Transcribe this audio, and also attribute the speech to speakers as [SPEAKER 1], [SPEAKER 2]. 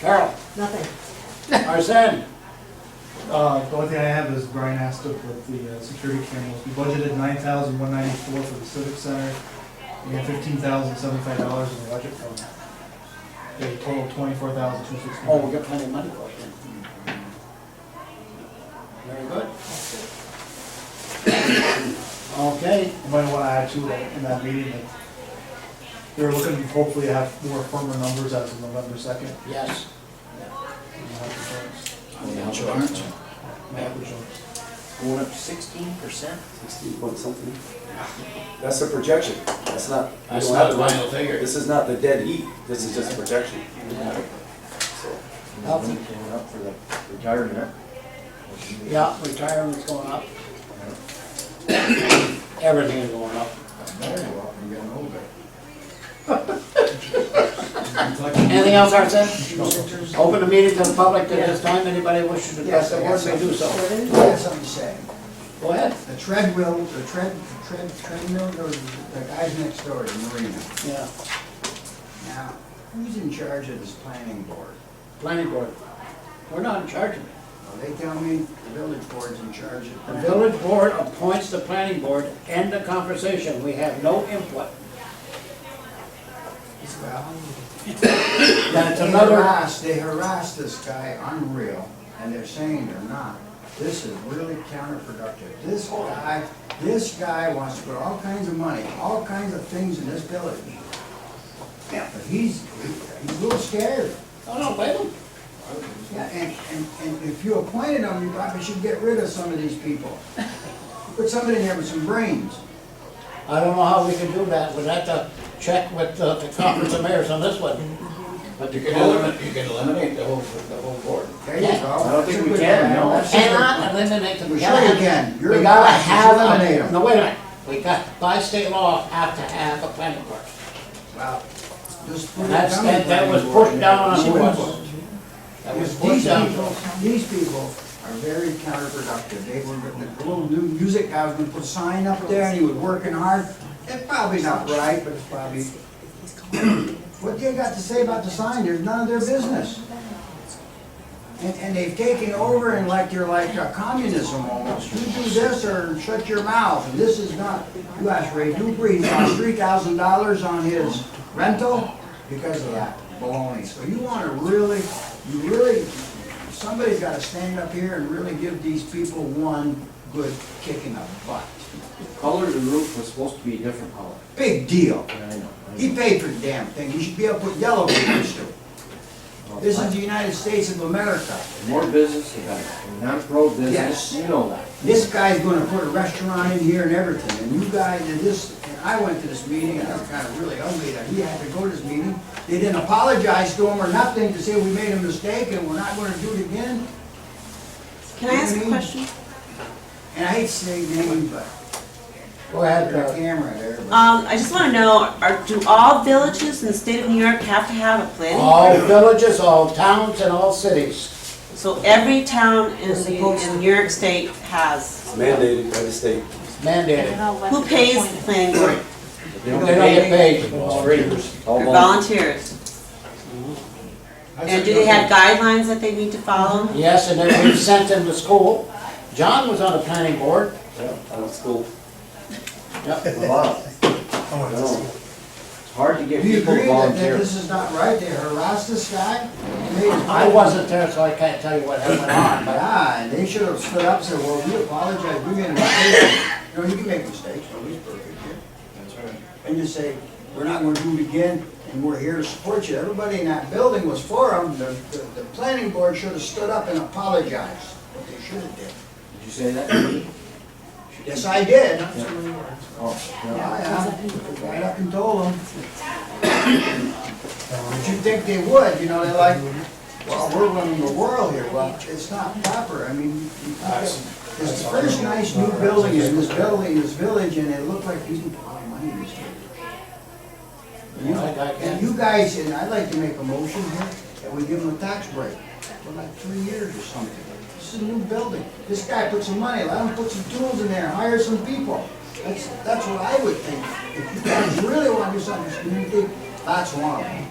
[SPEAKER 1] Carol,
[SPEAKER 2] Nothing.
[SPEAKER 1] Arsen,
[SPEAKER 3] Uh, the only thing I have is Brian asked if with the uh, security cameras, we budgeted nine thousand one ninety-four for the civic center, and fifteen thousand seventy-five dollars in the budget fund. A total twenty-four thousand two
[SPEAKER 1] oh, we
[SPEAKER 3] sixty-one.
[SPEAKER 1] got plenty of money for it. Very good. Okay,
[SPEAKER 3] You might wanna add to that in that meeting, that they're looking to hopefully have more firmer numbers as of November second.
[SPEAKER 1] yes.
[SPEAKER 4] Insurance.
[SPEAKER 1] Going up sixteen percent?
[SPEAKER 5] Sixteen point something. That's a projection, that's not. we
[SPEAKER 4] That's
[SPEAKER 5] don't
[SPEAKER 4] not
[SPEAKER 5] have
[SPEAKER 4] the
[SPEAKER 5] to-
[SPEAKER 4] final figure.
[SPEAKER 5] This is not the dead heat, this is just a projection, so.
[SPEAKER 1] Healthy.
[SPEAKER 6] Came up for the retirement.
[SPEAKER 1] Yeah, retirement's going up. Everything is going up.
[SPEAKER 6] Very well, you're getting older.
[SPEAKER 1] Anything else, Arsen? Open the meeting to the public at this time, anybody wishing to address
[SPEAKER 6] Yes,
[SPEAKER 1] the
[SPEAKER 6] I
[SPEAKER 1] board
[SPEAKER 6] guess
[SPEAKER 1] may do so.
[SPEAKER 6] I had something to say.
[SPEAKER 1] Go ahead.
[SPEAKER 6] The treadmill, the tread, tread, treadmill, there was the guys next door in Marina.
[SPEAKER 1] Yeah,
[SPEAKER 6] Now, who's in charge of this planning board?
[SPEAKER 1] planning board. We're not in charge of it.
[SPEAKER 6] Well, they tell me the village board's in charge of.
[SPEAKER 1] The
[SPEAKER 6] planning.
[SPEAKER 1] village board appoints the planning board, end the conversation, we have no input.
[SPEAKER 6] Well,
[SPEAKER 1] Then it's
[SPEAKER 6] They
[SPEAKER 1] another,
[SPEAKER 6] harassed, they harassed this guy, unreal, and they're saying they're not. This is really counterproductive. This guy, this guy wants to put all kinds of money, all kinds of things in this village. Yeah, but he's, he's a little scared.
[SPEAKER 1] oh no, wait, a minute.
[SPEAKER 6] Yeah, and, and, and if you appointed him, you probably should get rid of some of these people. Put somebody in there with some brains.
[SPEAKER 1] I don't know how we can do that, we'd have to check with uh, the conference of mayors on this one.
[SPEAKER 4] But you can eliminate, you can eliminate the whole, the whole board.
[SPEAKER 6] There you go.
[SPEAKER 1] Yeah.
[SPEAKER 6] I
[SPEAKER 5] don't think we can, no.
[SPEAKER 1] Cannot eliminate them.
[SPEAKER 6] Well, sure you can. You're
[SPEAKER 1] We gotta
[SPEAKER 6] right. Just
[SPEAKER 1] have, a-
[SPEAKER 6] eliminate 'em.
[SPEAKER 1] no, wait a minute, we got, by state law, have to have a planning board.
[SPEAKER 6] Wow. Just put it
[SPEAKER 1] That's,
[SPEAKER 6] down,
[SPEAKER 1] that, that was
[SPEAKER 6] planning board.
[SPEAKER 1] pushed down on
[SPEAKER 6] Even
[SPEAKER 1] us.
[SPEAKER 6] worse.
[SPEAKER 1] That was
[SPEAKER 6] Because
[SPEAKER 1] pushed
[SPEAKER 6] These
[SPEAKER 1] down.
[SPEAKER 6] people, these people are very counterproductive. They were, the little new music guy was gonna put a sign up there and he was working hard. It's probably not right, but it's probably, what they got to say about the sign, there's none of their business. And, and they've taken over and like, you're like a communism almost. You do this or shut your mouth, and this is not. You ask Ray Dupree, he lost three thousand dollars on his rental because of that baloney. So you wanna really, you really, somebody's gotta stand up here and really give these people one good kick in the butt.
[SPEAKER 5] Color of the roof was supposed to be a different color.
[SPEAKER 6] Big deal.
[SPEAKER 5] I know.
[SPEAKER 6] He paid for the damn thing. You should be able to put yellow papers to it. This is the United States of America.
[SPEAKER 5] More business, you got it. non-pro business,
[SPEAKER 6] Yes.
[SPEAKER 5] you know that.
[SPEAKER 6] this guy's gonna put a restaurant in here and everything, and you guys, and this, and I went to this meeting, and I was kinda really ugly that he had to go to this meeting. They didn't apologize to him or nothing to say we made a mistake and we're not gonna do it again,
[SPEAKER 2] Can I ask a question?
[SPEAKER 6] and I hate to say names, but
[SPEAKER 1] Go ahead,
[SPEAKER 6] there's a
[SPEAKER 1] uh,
[SPEAKER 6] camera there, but.
[SPEAKER 2] Um, I just wanna know, are, do all villages in the state of New York have to have a planning?
[SPEAKER 1] all villages, all towns, and all cities.
[SPEAKER 2] So every town in, the- in New York State has,
[SPEAKER 5] It's mandated by the state.
[SPEAKER 1] It's mandated.
[SPEAKER 2] who pays the planning board?
[SPEAKER 1] They don't get paid.
[SPEAKER 5] All
[SPEAKER 2] Or
[SPEAKER 5] volunteer.
[SPEAKER 2] volunteers? And do they have guidelines that they need to follow?
[SPEAKER 1] Yes, and then we sent them to school. John was on the planning board.
[SPEAKER 5] I went to school.
[SPEAKER 1] Yep.
[SPEAKER 5] Wow. I know. It's hard to get
[SPEAKER 6] Do you
[SPEAKER 5] people to
[SPEAKER 6] agree that,
[SPEAKER 5] volunteer.
[SPEAKER 6] that this is not right, they harassed this guy? and made him-
[SPEAKER 1] I wasn't there, so I can't tell you what went on, but
[SPEAKER 6] Yeah, and ah, they should have stood up and said, well, we apologize, we made a mistake. You know, you can make mistakes, nobody's perfect here. That's right. And you say, we're not gonna do it again, and we're here to support you. Everybody in that building was for them. The, the, the planning board should have stood up and apologized, what they should have did.
[SPEAKER 5] Did you say that to me?
[SPEAKER 6] Yes, I did. Yeah,
[SPEAKER 5] Oh, no.
[SPEAKER 6] yeah, right up and told them. But you'd think they would, you know, they're like, well, we're running the world here, well, it's not proper, I mean, you- you It's the first nice new building in this building, this village, and it looked like you can put a lot of money in this building.
[SPEAKER 1] you know, like I
[SPEAKER 6] And
[SPEAKER 1] can't.
[SPEAKER 6] you guys, and I'd like to make a motion here, that we give them a tax break for like three years or something. This is a new building. This guy put some money, let him put some tools in there, hire some people. That's, that's what I would think. If you guys really want to do something for this community, that's one of them.